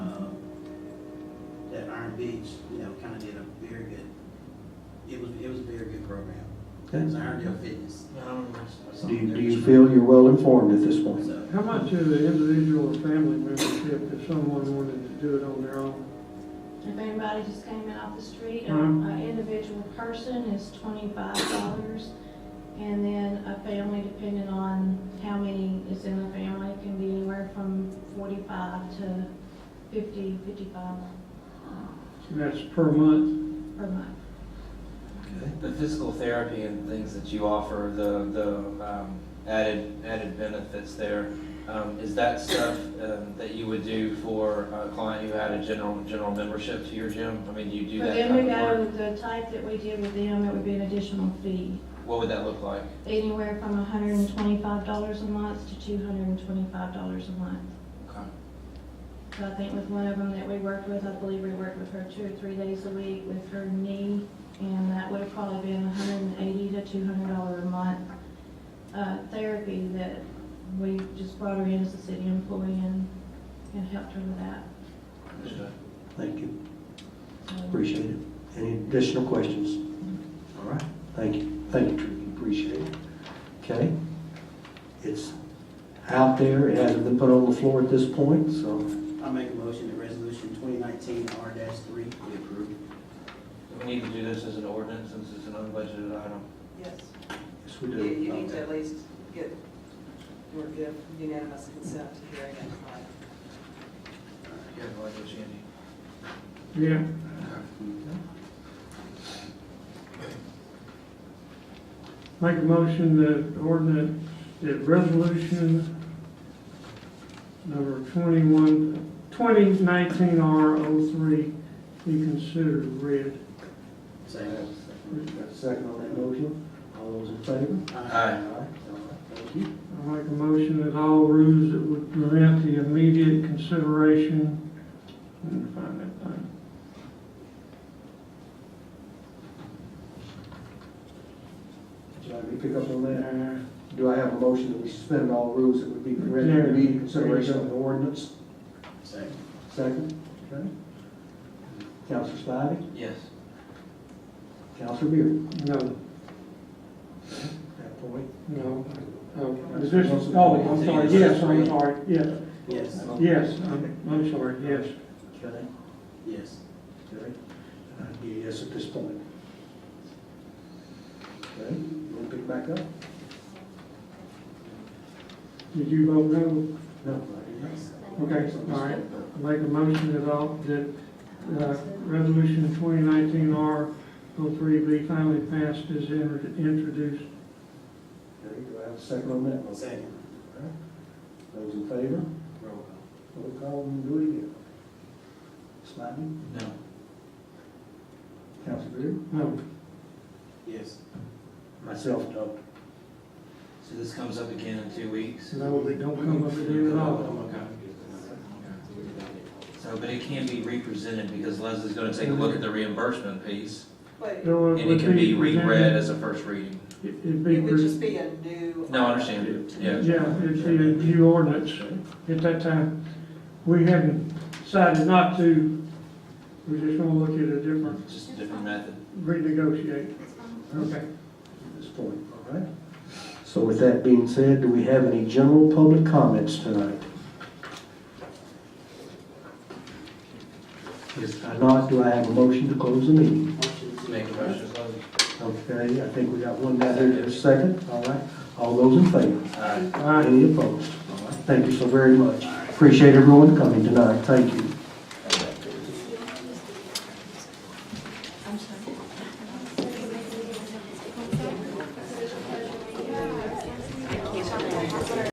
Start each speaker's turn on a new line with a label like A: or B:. A: Uh, Iron Beach, you know, kind of did a very good, it was, it was a very good program. It was
B: Okay.
A: Irondale Fitness.
C: I don't know.
B: Do you, do you feel you're well informed at this point?
A: So,
D: How much is an individual or family membership if someone wanted to do it on their own?
E: If anybody just came in off the street, a-
D: Mhm.
E: a individual person is twenty-five dollars. And then a family, depending on how many is in the family, can be anywhere from forty-five to fifty, fifty-five
D: And that's per month?
E: per month.
B: Okay.
C: The physical therapy and things that you offer, the, the um, added, added benefits there, um, is that stuff um, that you would do for a client who had a general, general membership to your gym? I mean, do you do
E: For
C: that
E: them to
C: kind of
E: go,
C: work?
E: the type that we did with them, it would be an additional fee,
C: What would that look like?
E: anywhere from hundred and twenty-five dollars a month to two hundred and twenty-five dollars a month.
C: Okay.
E: So I think with one of them that we worked with, I believe we worked with her two or three days a week with her knee, and that would have probably been hundred and eighty to two hundred dollar a month. Uh, therapy that we just brought her in as a city employee and, and helped her with that.
C: Understood.
B: Thank you,
E: So-
B: appreciate it. Any additional questions? All right, thank you, thank you, Tricky, appreciate it. Okay? It's out there, it hasn't been put on the floor at this point, so
A: I make a motion that resolution twenty nineteen R three be approved.
C: Do we need to do this as an ordinance since it's an unbudgeted item?
F: Yes,
B: yes, we
F: you, you
B: do.
F: need to at least get, or give unanimous consent to hearing it tonight.
C: Yeah, I like what Shandy.
D: Yeah. Make a motion that ordinance, that resolution number 21, 2019R03 be considered read.
A: Second.
B: Got a second on that motion? All those in favor?
C: Aye.
B: All right, all right, Thank you.
D: I make a motion that all rules that would prevent the immediate consideration, let me find that thing.
B: John, you pick up on that? Do I have a motion that we suspend all rules that would be
D: Yeah.
B: prevented from immediate consideration of the ordinance?
A: Second.
B: Second. Okay. Counselor Spivey,
C: Yes.
B: Counselor Beard.
D: No,
B: That point.
D: no, no. Is this, oh, I'm sorry, yes, I'm sorry, yes,
A: Yes,
D: yes, I'm, I'm sorry, yes.
B: Okay,
A: yes.
B: okay. I'd be a yes at this point. Okay, you want to pick back up?
D: Did you vote no?
B: No.
D: Okay, all right. I Make a motion that all, that, uh, resolution twenty nineteen R oh three be finally passed as in- introduced.
B: Okay, do I have a second on that? motion?
A: Second.
B: Those in favor?
A: Roll
B: Roll call and do it again. Spivey,
C: No.
B: Counselor Beard.
D: No,
A: call. Yes.
B: Myself, no.
C: So this comes up again in two weeks?
D: no, they don't come up again at all.
C: So, but it can be represented because Leslie's gonna take a look at the reimbursement piece,
F: But
D: No,
C: and
D: would
C: it can be
D: presented-
C: reread as a first reading.
D: It'd be,
F: it would
D: pre-
F: just be a new.
C: No, I understand, yeah.
D: yeah, it'd be a new ordinance at that time. We hadn't decided not to, we're just gonna look at a different,
C: Just a different method.
D: renegotiate. Okay.
B: at this point, all right? So with that being said, do we have any general public comments tonight? If not, do I have a motion to close the meeting?
C: Make a motion, Leslie.
B: Okay, I think we got one down there in a second, all right? All those in favor?
C: Aye.
B: Any opposed? All right, Thank you so very much. Appreciate everyone coming tonight, thank you.